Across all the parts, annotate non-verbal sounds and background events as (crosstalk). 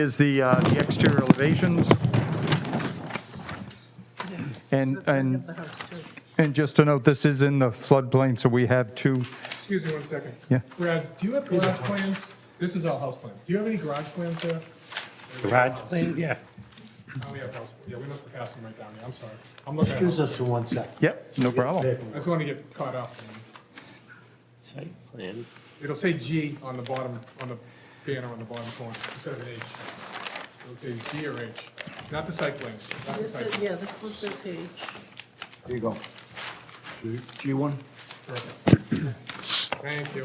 is the, uh, the exterior elevations. And, and, and just to note, this is in the floodplain, so we have two, Excuse me one second. Yeah. Brad, do you have garage plans? This is all house plans. Do you have any garage plans there? Garage plan, yeah. Oh, we have house, yeah, we must have passed them right down here, I'm sorry. I'm looking at, Excuse house. us for one sec. yep, no problem. I just want to get caught up. Site plan. It'll say G on the bottom, on the banner on the bottom corner, instead of an H. It'll say G or H, not the site plan, not the This site. is, plan. yeah, this one says H. There you go. G- G1? Thank you.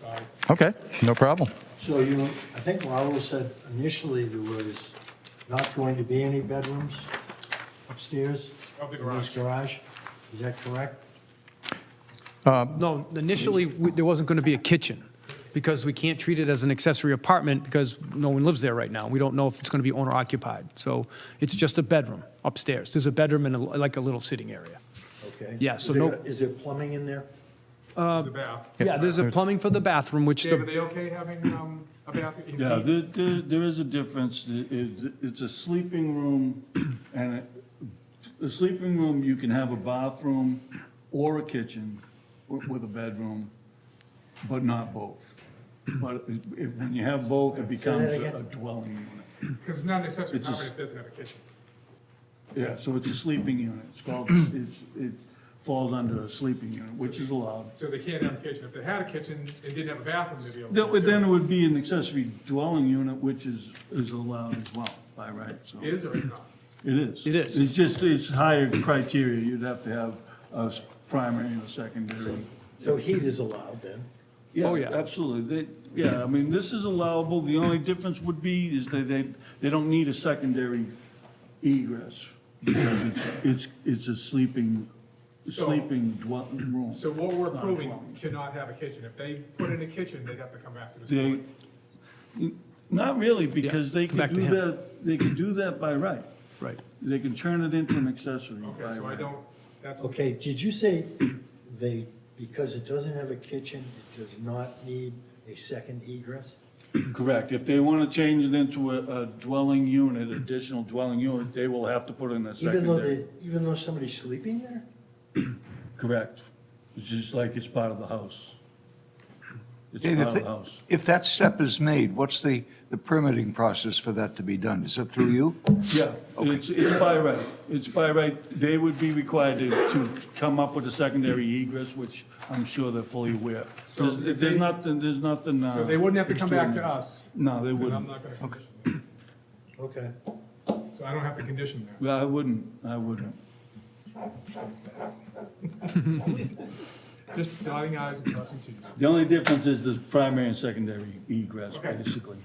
Sorry. Okay, no problem. So you, I think Raul said initially there was not going to be any bedrooms upstairs? Of the in this garage. garage, is that correct? No, initially, we- there wasn't going to be a kitchen, because we can't treat it as an accessory apartment, because no one lives there right now. We don't know if it's going to be owner-occupied. So it's just a bedroom upstairs. There's a bedroom and a- like a little sitting area. Okay. Yeah, so Is there- no- Is there plumbing in there? It's a bath. Yeah, there's a plumbing for the bathroom, which Dave, are the, they okay having, um, a bath? Yeah, there, there, there is a difference. It- it- It's a sleeping room, (clears throat) and a, a sleeping room, you can have a bathroom or a kitchen wi- with a bedroom, but not both. But if, if- when you have both, it becomes again. a dwelling unit. Because it's not an accessory It's a s- property, it doesn't have a kitchen. Yeah, so it's a sleeping unit. It's called, it's, it falls under a sleeping unit, which is allowed. So they can't have a kitchen. If they had a kitchen and didn't have a bathroom, they'd be able to. That would- Then too. it would be an accessory dwelling unit, which is, is allowed as well by right, so. Is or is not? It is. It is. It's just, it's higher criteria. You'd have to have a s- primary and a secondary. So heat is allowed then? Oh, yeah. Absolutely. They, yeah, I mean, this is allowable. The only difference would be is that they, they don't need a secondary egress because it's, it's, it's a sleeping, So- sleeping dwelling room. So what we're approving Not a dwelling. cannot have a kitchen. If they put in a kitchen, they'd have to come back to this. They, board. not really, because they back could to do him. that, they could do that by right. right. They can turn it into an accessory by Okay, so I right. don't, that's, Okay, did you say they, because it doesn't have a kitchen, it does not need a second egress? Correct. If they want to change it into a a dwelling unit, additional dwelling unit, they will have to put in a Even though they, secondary. even though somebody's sleeping there? Correct. It's just like it's part of the house. It's And part of if, the house. if that step is made, what's the, the permitting process for that to be done? Is it through you? Yeah, it's, it's by right. It's by right. They would be required to, to come up with a secondary egress, which I'm sure they're fully aware. So There's, they- there's nothing, there's nothing. uh, so they wouldn't have to come back to extraordinary. us, No, and they I'm wouldn't. not gonna condition that. Okay. So I don't have to condition that. Well, I wouldn't, I wouldn't. Just dotting i's and crossing t's. The only difference is the primary and secondary egress, Okay. basically.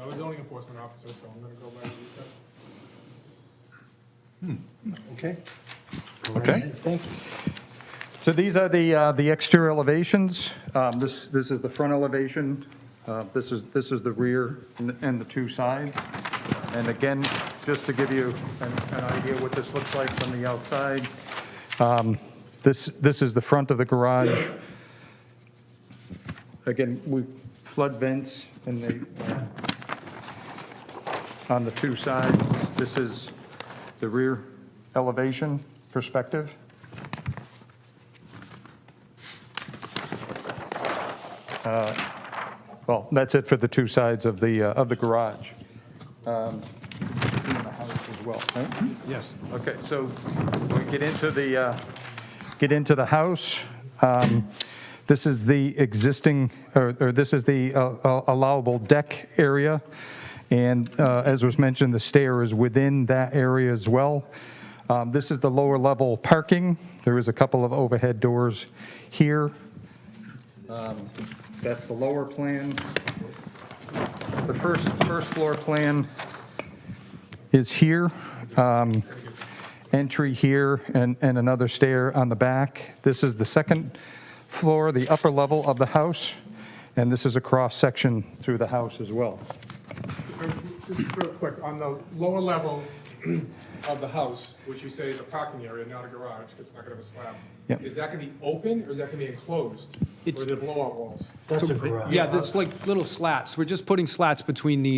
I was zoning enforcement officer, so I'm gonna go by what you said. Okay. Okay. Thank you. So these are the, uh, the exterior elevations. Um, This, this is the front elevation, Uh, this is, this is the rear and- and the two sides. And again, just to give you an an idea what this looks like from the outside, um, this, this is the front of the garage. Again, we flood vents and they, uh, on the two sides. This is the rear elevation perspective. Well, that's it for the two sides of the, uh, of the garage. Um, in the house as well, right? Yes. Okay, so we get into the, uh, get into the house. Um, This is the existing, or or this is the uh, uh, allowable deck area, and uh, as was mentioned, the stair is within that area as well. Um, This is the lower level parking. There is a couple of overhead doors here. Um, That's the lower plan. The first, first floor plan is here. Um, Entry here and, and another stair on the back. This is the second floor, the upper level of the house, and this is a cross-section through the house as well. Just real quick, on the lower level (clears throat) of the house, which you say is a parking area, not a garage, because it's not gonna have a slab. Yep. Is that gonna be open, or is that gonna be enclosed? Or is It's- it blowout walls? That's a garage. Yeah, there's like little slats. We're just putting slats between the